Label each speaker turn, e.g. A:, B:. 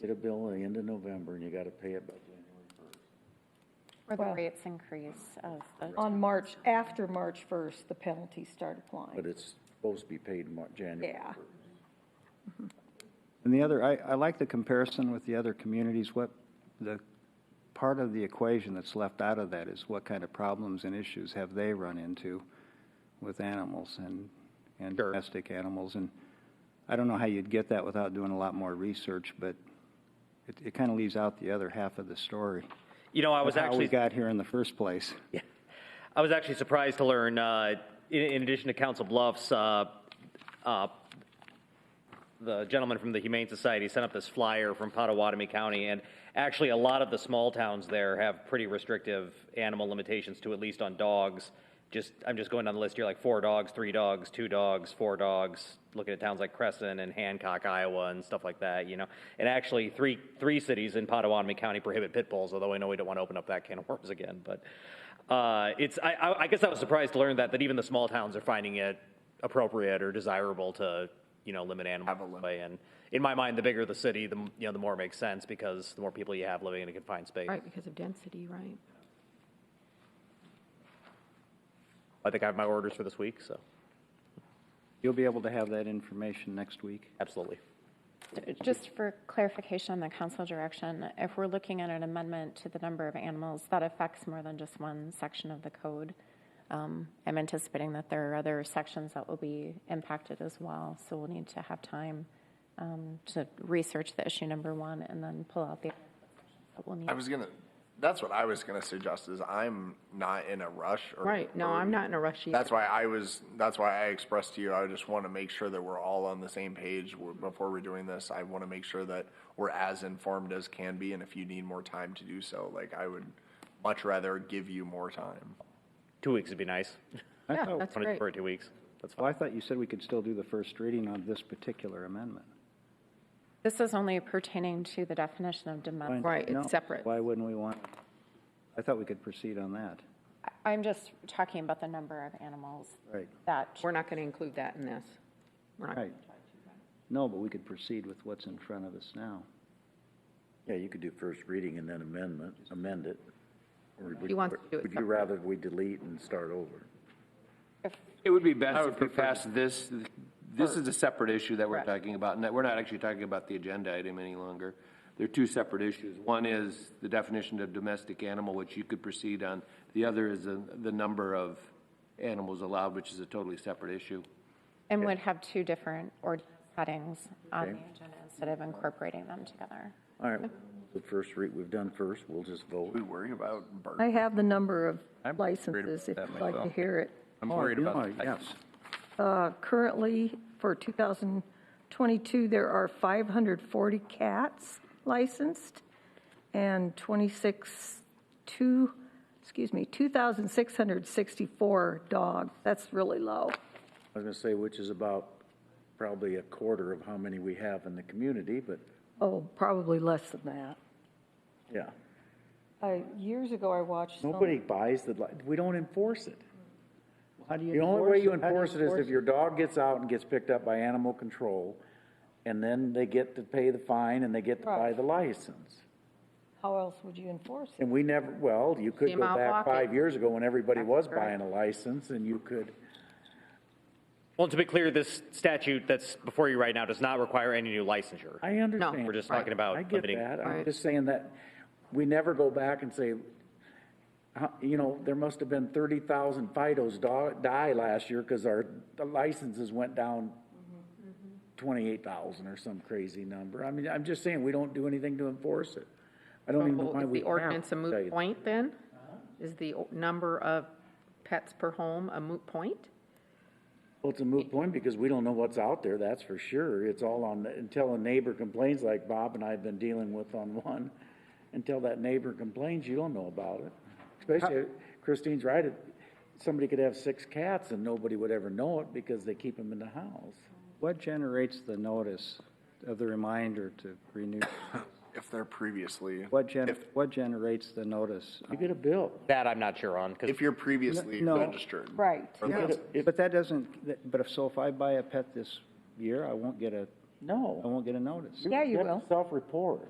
A: Get a bill at the end of November and you gotta pay it by January first.
B: Or the
C: Well-
B: rates increase of the,
C: On March, after March 1st, the penalties start
A: But
C: applying.
A: it's supposed to be paid Mar- January
C: Yeah.
A: first.
D: And the other, I, I like the comparison with the other communities. What the part of the equation that's left out of that is what kind of problems and issues have they run into with animals and, and
E: Sure.
D: domestic animals? And I don't know how you'd get that without doing a lot more research, but it, it kind of leaves out the other half of the story.
E: You know, I was
D: of how
E: actually
D: we got here in the first place.
E: I was actually surprised to learn, uh, in, in addition to Council Bluffs, uh, uh, the gentleman from the Humane Society sent up this flyer from Pottawatomie County, and actually a lot of the small towns there have pretty restrictive animal limitations to at least on dogs. Just I'm just going down the list here, like four dogs, three dogs, two dogs, four dogs. Looking at towns like Crescent and Hancock, Iowa, and stuff like that, you know. And actually, three three cities in Pottawatomie County prohibit pit bulls. Although I know we don't want to open up that can of worms again, but uh, it's I, I, I guess I was surprised to learn that that even the small towns are finding it appropriate or desirable to you know limit animal
F: Have a limit.
E: way. And in my mind, the bigger the city, the m- you know the more it makes sense because the more people you have living in a confined space.
G: Right, because of density, right?
E: I think I have my orders for this week, so
D: You'll be able to have that information next week.
E: absolutely.
B: just for clarification on the council direction, if we're looking at an amendment to the number of animals, that affects more than just one section of the code. Um, I'm anticipating that there are other sections that will be impacted as well, so we'll need to have time um, to research the issue number one and then pull out the. that we'll need.
F: I was gonna, that's what I was gonna suggest is I'm not in a rush or.
G: Right, no, I'm not in a rush either.
F: That's why I was, that's why I expressed to you, I just wanna make sure that we're all on the same page w- before we're doing this. I wanna make sure that we're as informed as can be, and if you need more time to do so, like, I would much rather give you more time.
E: Two weeks would be nice.
D: I
G: Yeah,
A: Oh,
D: thought-
G: that's
E: Wanna
G: great.
E: defer it two weeks. That's fine.
D: Well, Oh, I thought you said we could still do the first reading on this particular amendment.
B: This is only pertaining to the definition of domestic.
G: Right, it's
D: No,
G: separate.
D: Why wouldn't we want, I thought we could proceed on that.
B: I'm just talking about the number of animals
D: Right.
B: that
G: We're not going to include that in this. We're not,
D: Right. No, but we could proceed with what's in front of us now.
A: Yeah, you could do first reading and then amendment, amend it. Or would-
G: He wants to do it
A: Would you
G: separate.
A: rather we delete and start over?
H: It would be best if we passed this, this is a separate issue that we're
G: Correct.
H: talking about, and that we're not actually talking about the agenda item any longer. They're two separate issues. One is the definition of domestic animal, which you could proceed on. The other is the, the number of animals allowed, which is a totally separate issue.
B: And would have two different or headings on the agenda instead of incorporating them together.
A: All right, the first read, we've done first, we'll just vote.
F: We worry about bird.
C: I have the number of
I: I'm worried about
C: licenses, if
I: that
C: you'd like to
I: myself.
C: hear it.
A: Oh,
I: I'm worried about the
D: Yes.
I: fact-
C: Uh, Currently, for 2022, there are 540 cats licensed and 26, two, excuse me, 2,664 dogs. That's really low.
A: I was gonna say, which is about probably a quarter of how many we have in the community, but,
C: Oh, probably less than that.
A: yeah.
C: Uh, Years ago, I watched some.
A: Nobody buys the, li- we don't enforce it.
D: How do you
A: The only way you
D: How do
A: enforce it is if
D: enforce
A: your dog gets out and gets picked up by animal control, and then they get to pay the fine and they get to buy
C: Right.
A: the license.
C: How else would you enforce it?
A: And we never, well, you could
G: See 'em
A: go
G: out
A: back
G: walking.
A: five years ago when everybody was
G: That's right.
A: buying a license, and you could,
E: Well, to be clear, this statute that's before you right now does not require any new licensure.
A: I understand.
E: We're just
A: I-
E: talking about
A: I get
E: limiting-
A: that, I'm
G: Right.
A: just saying that, we never go back and say, how- you know, there must have been thirty thousand Fidos do- die last year, cause our, the licenses went down twenty-eight thousand or some crazy number, I mean, I'm just saying, we don't do anything to enforce it. I don't even know why
G: Is
A: we
G: the
A: have
G: ordinance a
A: to tell you.
G: moot point then? Is the o- number of pets per home a moot point?
A: Well, it's a moot point because we don't know what's out there, that's for sure. It's all on, until a neighbor complains like Bob and I have been dealing with on one, until that neighbor complains, you don't know about it. Especially, Christine's right, it- somebody could have six cats and nobody would ever know it because they keep them in the house.
D: What generates the notice of the reminder to renew?
F: If they're previously,
D: What gen, what generates the notice?
A: You get a bill.
E: That I'm not sure on because
F: if you're previously
D: No.
F: registered.
C: Right.
F: Or licensed.
D: But that doesn't, that- but if, so if I buy a pet this year, I won't get a, I
A: No.
D: won't get a notice.
C: Yeah, you
A: have to
C: will.
A: Self-report.